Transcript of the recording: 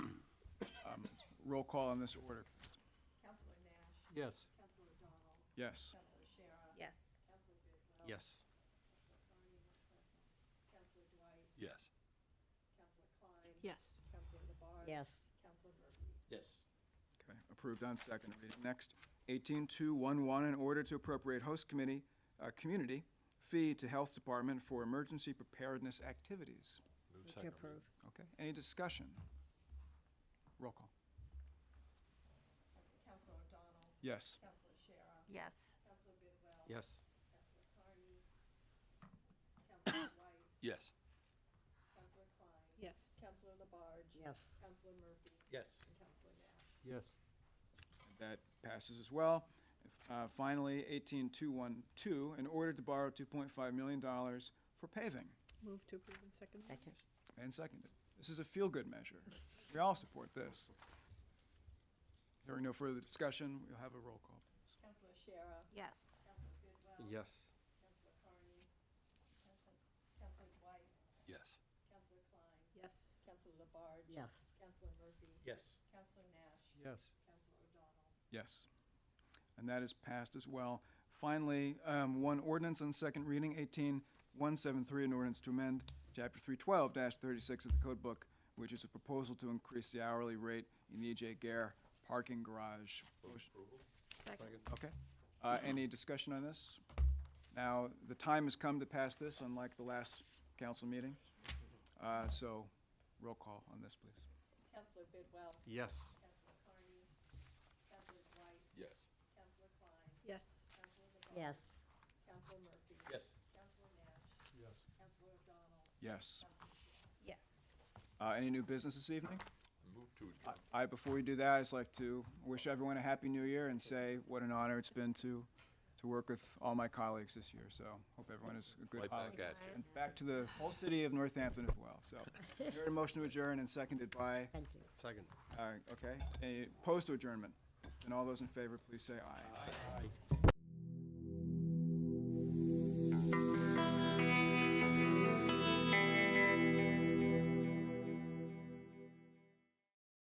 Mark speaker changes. Speaker 1: Roll call on this order.
Speaker 2: Counselor Nash,
Speaker 3: Yes.
Speaker 2: Counselor Donald,
Speaker 1: Yes.
Speaker 2: Counselor Shara,
Speaker 4: Yes.
Speaker 2: Counselor Bidwell.
Speaker 3: Yes.
Speaker 2: Counselor Dwight,
Speaker 3: Yes.
Speaker 2: Counselor Klein.
Speaker 5: Yes.
Speaker 2: Counselor Labarge.
Speaker 4: Yes.
Speaker 2: Counselor Murphy.
Speaker 3: Yes.
Speaker 1: Okay, approved on second reading. Next, 18211, in order to appropriate host committee, uh, community fee to Health Department for emergency preparedness activities.
Speaker 3: Move second. reading.
Speaker 1: Okay, any discussion? Roll call.
Speaker 2: Counselor Donald,
Speaker 1: Yes.
Speaker 2: Counselor Shara,
Speaker 5: Yes.
Speaker 2: Counselor Bidwell.
Speaker 3: Yes.
Speaker 2: Counselor Carney, Counselor Dwight,
Speaker 3: Yes.
Speaker 2: Counselor Klein.
Speaker 5: Yes.
Speaker 2: Counselor Labarge.
Speaker 4: Yes.
Speaker 2: Counselor Murphy.
Speaker 3: Yes.
Speaker 2: And Counselor Nash.
Speaker 3: Yes.
Speaker 1: That passes as well. Uh, Finally, 18212, in order to borrow $2.5 million for paving
Speaker 5: Move to approve in second.
Speaker 4: Second.
Speaker 1: and seconded. This is a feel-good measure. We all support this. Hearing no further discussion, we'll have a roll call. please.
Speaker 2: Counselor Shara,
Speaker 5: Yes.
Speaker 2: Counselor Bidwell.
Speaker 3: Yes.
Speaker 2: Counselor Carney, Counselor Counselor Dwight,
Speaker 3: Yes.
Speaker 2: Counselor Klein,
Speaker 5: Yes.
Speaker 2: Counselor Labarge.
Speaker 4: Yes.
Speaker 2: Counselor Murphy.
Speaker 3: Yes.
Speaker 2: Counselor Nash.
Speaker 3: Yes.
Speaker 2: Counselor O'Donnell.
Speaker 1: Yes. And that is passed as well. Finally, um, one ordinance on second reading, 18173, an ordinance to amend Chapter 312-36 of the Code Book, which is a proposal to increase the hourly rate in the E.J. Gare parking garage. Motion-
Speaker 5: Second.
Speaker 1: Okay. Uh, Any discussion on this? Now, the time has come to pass this, unlike the last council meeting. Uh, So roll call on this, please.
Speaker 2: Counselor Bidwell.
Speaker 3: Yes.
Speaker 2: Counselor Carney. Counselor Dwight.
Speaker 3: Yes.
Speaker 2: Counselor Klein.
Speaker 5: Yes.
Speaker 2: Counselor LeBarge.
Speaker 4: Yes.
Speaker 2: Counselor Murphy.
Speaker 3: Yes.
Speaker 2: Counselor Nash.
Speaker 3: Yes.
Speaker 2: Counselor O'Donnell.
Speaker 1: Yes.
Speaker 2: Counselor Shara.
Speaker 5: Yes.
Speaker 1: Uh, Any new business this evening?
Speaker 3: Move to
Speaker 1: I-
Speaker 3: adjourn.
Speaker 1: I, before we do that, I'd just like to wish everyone a happy new year and say what an honor it's been to, to work with all my colleagues this year. So hope everyone is a good
Speaker 3: Right back
Speaker 1: holiday.
Speaker 3: at you.
Speaker 1: And back to the whole city of Northampton as well. So, you heard a motion to adjourn and seconded by,
Speaker 4: Thank you.
Speaker 3: Second.
Speaker 1: uh, okay, a post adjournment. And all those in favor, please say aye.
Speaker 3: Aye.